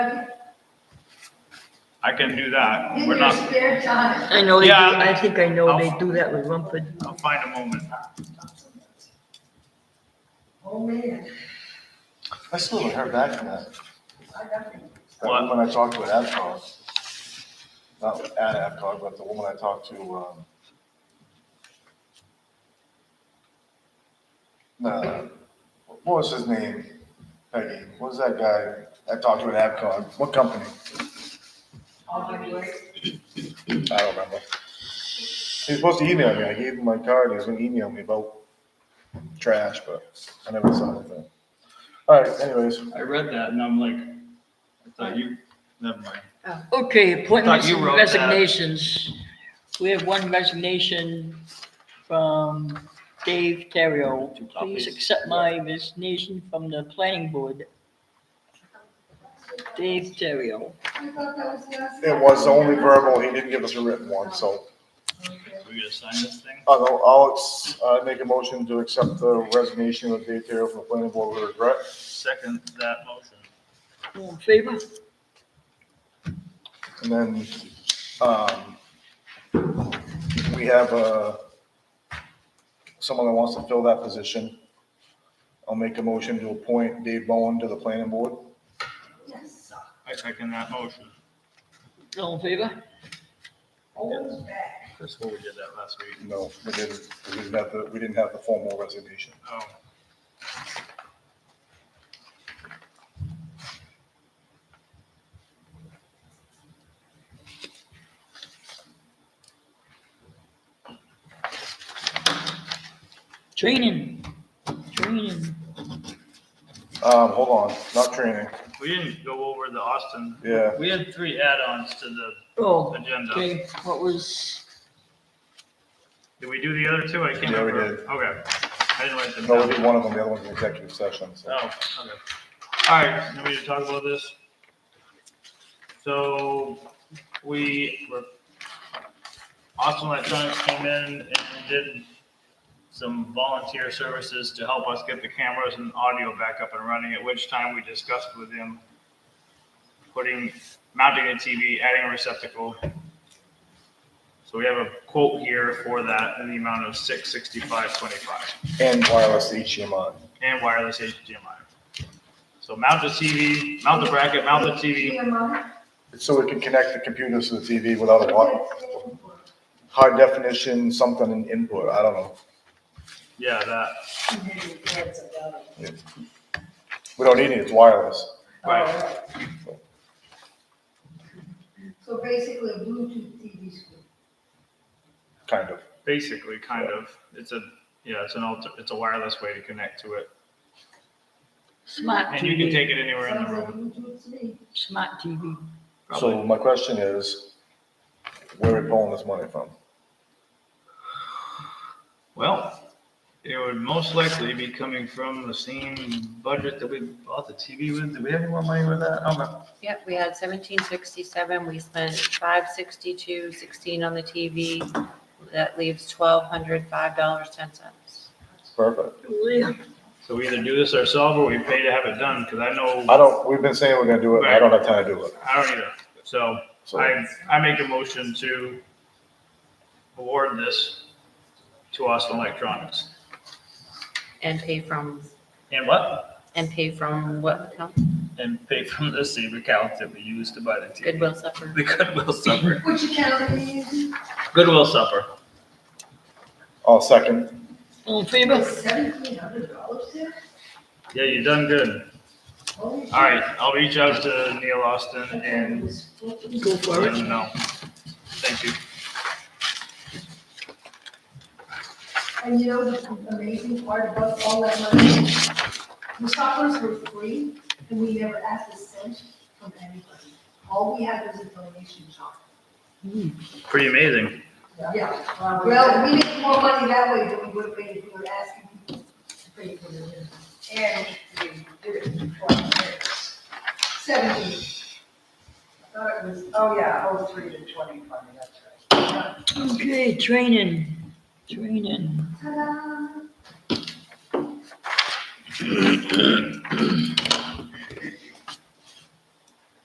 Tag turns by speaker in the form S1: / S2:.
S1: I can do that.
S2: In
S1: We're
S2: your
S1: not,
S2: spare time.
S3: I know they do,
S1: Yeah. Oh.
S3: I think I know they do that with Rumford.
S1: I'll find a moment.
S2: Oh, man,
S4: I still haven't heard back from that,
S2: I got you.
S4: that
S1: What?
S4: woman I talked to at Avcog. Not at Avcog, but the woman I talked to, um. No, uh, what was his name? Peggy, what was that guy I talked to at Avcog? What company?
S2: All my work.
S4: I don't remember. He was supposed to email me. I gave him my card. He was gonna email me about trash, but I never saw anything. All right, anyways,
S1: I read that and I'm like, I thought you, never mind.
S3: Oh. Okay, appointments
S1: you
S3: and
S1: wrote that.
S3: resignations. We have one resignation from Dave Terrio.
S1: Two copies.
S3: Please accept my resignation from the planning board. Dave Terrio.
S2: I thought that was the last
S4: it
S2: time.
S4: was only verbal. He didn't give us a written one, so
S2: Okay.
S1: We gonna sign this thing?
S4: I'll, I'll, ex- uh, make a motion to accept the resignation of Dave Terrio from the planning board with regret.
S1: Second that motion.
S3: All in favor?
S4: And then, um, we have, uh, someone that wants to fill that position. I'll make a motion to appoint Dave Bowen to the planning board.
S2: Yes,
S1: I second that motion.
S3: All in favor?
S2: always back.
S1: That's what we did that last week.
S4: No, we didn't, we didn't have the, we didn't have the formal resignation.
S1: Oh,
S3: Training, training.
S4: Um, hold on, not training,
S1: we didn't go over the Austin.
S4: yeah.
S1: We had three add-ons to the,
S3: Oh,
S1: Agenda.
S3: okay, what was,
S1: did we do the other two? I can't
S4: Yeah, we
S1: remember. Okay. I didn't write them
S4: No, we
S1: down.
S4: did one of them, the other one's an executive session, so.
S1: Oh, okay. All right, let me to talk about this. So we were, Austin Electronics came in and did some volunteer services to help us get the cameras and audio back up and running, at which time we discussed with him putting, mounting a TV, adding a receptacle. So we have a quote here for that in the amount of six sixty-five twenty-five
S4: And wireless HDMI.
S1: and wireless HDMI. So mount the TV, mount the bracket, mount the TV.
S2: Yeah, Mom.
S4: So we can connect the computers to the TV without a wire, high definition, something in input, I don't know.
S1: Yeah, that.
S4: We don't need it, it's wireless.
S1: Right.
S2: So basically a Bluetooth TV screen.
S4: Kind of.
S1: Basically, kind of. It's a yeah, it's an alter, it's a wireless way to connect to it,
S3: smart
S1: and you can
S3: TV,
S1: take it anywhere in
S2: Sounds
S1: the
S2: like
S1: room.
S2: Bluetooth to me.
S3: smart TV.
S4: So
S1: Probably.
S4: my question is, where are we pulling this money from?
S1: Well, it would most likely be coming from the same budget that we bought the TV with. Do we have any more money with that? I don't know.
S5: Yep, we had seventeen sixty-seven, we spent five sixty-two, sixteen on the TV. That leaves twelve hundred, five dollars, ten cents.
S4: Perfect.
S3: Yeah.
S1: So we either do this ourselves or we pay to have it done. Because I know
S4: I don't, we've been saying we're gonna do it, and I don't have time to do it.
S1: I don't either. So
S4: So
S1: I, I make a motion to award this to Austin Electronics.
S5: And pay from,
S1: And what?
S5: and pay from what account?
S1: And pay from the same account that we used to buy the TV.
S5: Goodwill Supper.
S1: The Goodwill Supper.
S2: Which account are you using?
S1: Goodwill Supper.
S4: I'll second.
S3: All in favor?
S2: Seventeen hundred dollars there?
S1: Yeah, you done good.
S2: All
S1: All right, I'll reach out to Neil Austin and uh,
S3: Go for
S1: let
S3: it.
S1: him know. Thank you.
S2: And you know the amazing part about all that money? The shoppers were free and we never asked a cent from anybody. All we had was a donation shop.
S1: Pretty amazing.
S2: Yeah, well, we made more money that way than we would have made if we were asking people to pay for the dinner. And we did it for our parents. Seventeen. I thought it was, oh yeah, oh, three to twenty-five, that's right.
S3: Okay, training, training.
S2: Ta-da.